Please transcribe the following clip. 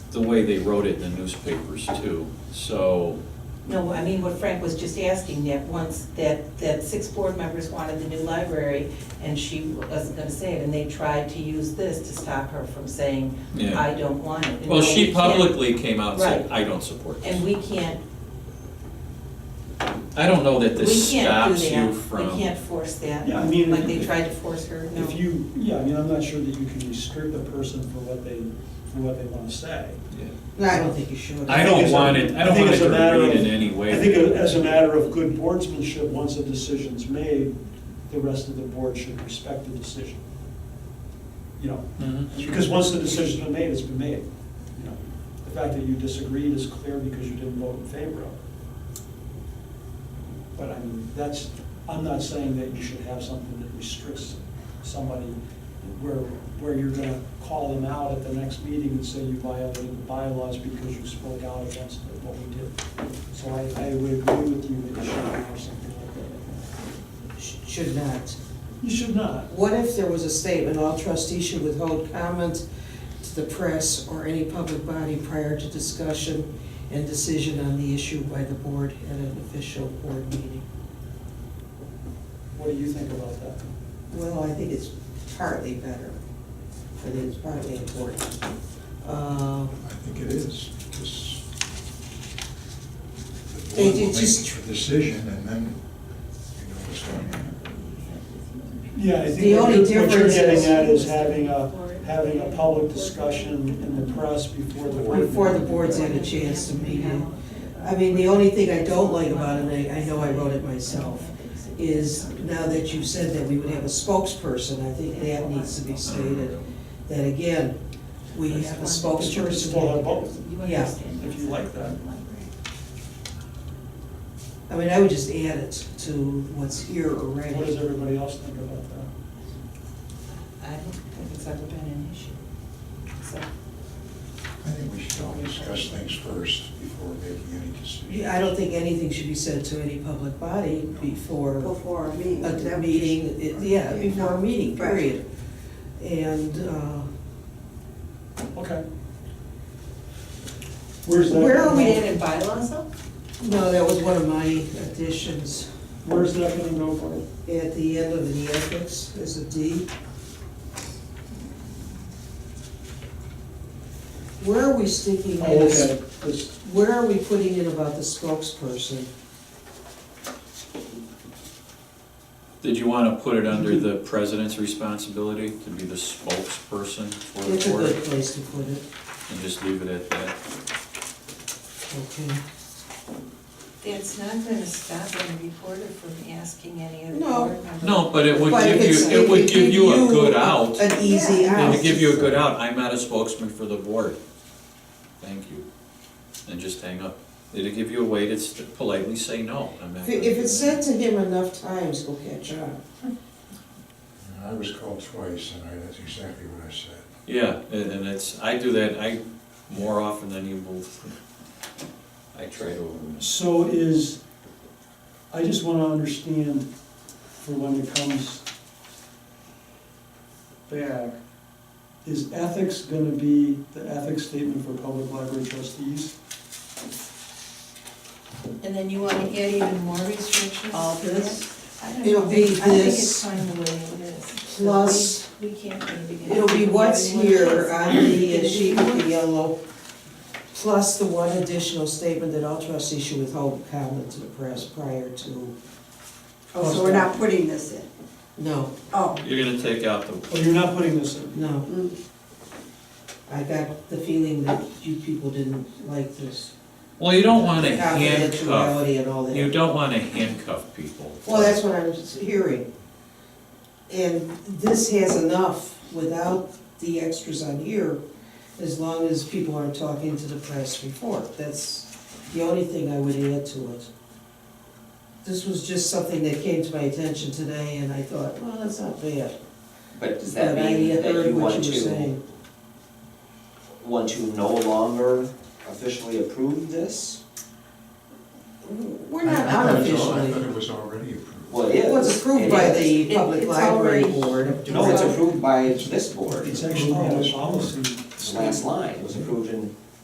the way they wrote it in the newspapers too. So, No, I mean, what Frank was just asking, that once, that, that six board members wanted the new library, and she wasn't gonna say it, and they tried to use this to stop her from saying, Yeah. I don't want it. And well, no, we she can't- publicly came out and said, Right. I don't support And this. we can't, I don't know that we this can't stops do you that, we from, can't force that, Yeah, I mean, like they if- tried to force her, no. If you, yeah, I mean, I'm not sure that you can restrict a person for what they, for what they want to say. Yeah. No, I don't think you should. I think don't it's a- want it- I don't think want it's it a to matter read in of- any way I think that- as a matter of good boardsmanship, once a decision's made, the rest of the board should respect the decision. You know, Mhm. because once the decision's been made, it's been made, you know. The fact that you disagreed is clear because you didn't vote in favor of it. But I mean, that's, I'm not saying that you should have something that restricts somebody where, where you're gonna call them out at the next meeting and say you violated the bylaws because you spoke out against what we did. So I, I would agree with you that you shouldn't have something like that. Sh- Should not. You should not. What if there was a statement, all trustees should withhold comment to the press or any public body prior to discussion and decision on the issue by the board at an official board meeting? What do you think about that? Well, I think it's partly better. I think it's partly important. Um, I think it is, because the They board did will make just- a decision, and then, you know, what's going on. Yeah, I The think what only you're- what you're difference getting is- at is having a, having a public discussion in the press before the board. Before the board's had a chance to meet it. I mean, the only thing I don't like about it, and I, I know I wrote it myself, is now that you said that we would have a spokesperson, I think that needs to be stated. That again, we have a You still have spokesperson. both, Yeah. if you like that. I mean, I would just add it to what's here What does already. everybody else think about that? I don't think it's ever been an issue, so. I think we should all discuss things first before making any decisions. Yeah, I don't think anything should be said to any public body before Before a meeting. a that was- meeting, it- yeah, before a meeting, Right. period. And, uh, Okay. Where's that? Where are Are we we- in bylaws though? no, that was one of my additions. Where's that gonna go for? At the end of the ethics, there's a D. Where are we sticking in, Oh, this- okay, this, where are we putting in about the spokesperson? Did you want to put it under the president's responsibility to be the spokesperson for It's the a board? good place to put it, And just leave it at that? okay. It's not gonna stop any reporter from asking any other No. board member. No, but it would But give it's- you, it would give you a good out. An easy Yeah. And out. to give you a good out, I'm not a spokesman for the board. Thank you. And just hang up. It'll give you a way to s- politely say no. I'm not If gonna it- do if it's that. said to him enough times, he'll catch on. And I was called twice, and I, that's exactly what I said. Yeah, and and it's, I do that, I, more often than you will, I try to. so is, I just wanna understand for when it comes back, is ethics gonna be the ethics statement for public library trustees? And then you wanna add even more restrictions? All to that? this. I don't It'll know. be I think this it's fine the way it is. Plus, We we can't leave it. it'll be what's here on the sheet with the yellow, plus the one additional statement that all trustees should withhold comment to the press prior to, Oh, so we're not putting this in? no, Oh, You're gonna take out the, Well, Oh, you're not putting this in. no. mm, I got the feeling that you people didn't like this. well, you don't wanna handcuff, Confidentiality and all that. you don't wanna handcuff people. Well, that's what I'm just hearing. And this has enough without the extras on here, as long as people aren't talking to the press before. That's the only thing I would add to it. This was just something that came to my attention today, and I thought, well, that's not bad. But does But that I mean that heard you what want were to, saying. want to no longer officially approve this? We're I- not I thought it was all- I thought unofficially. it was already approved. Well, it is. It was approved by the It- Public it's Library already- Board. No, it's approved by this board. It's The actually in a policy. last line, it was approved in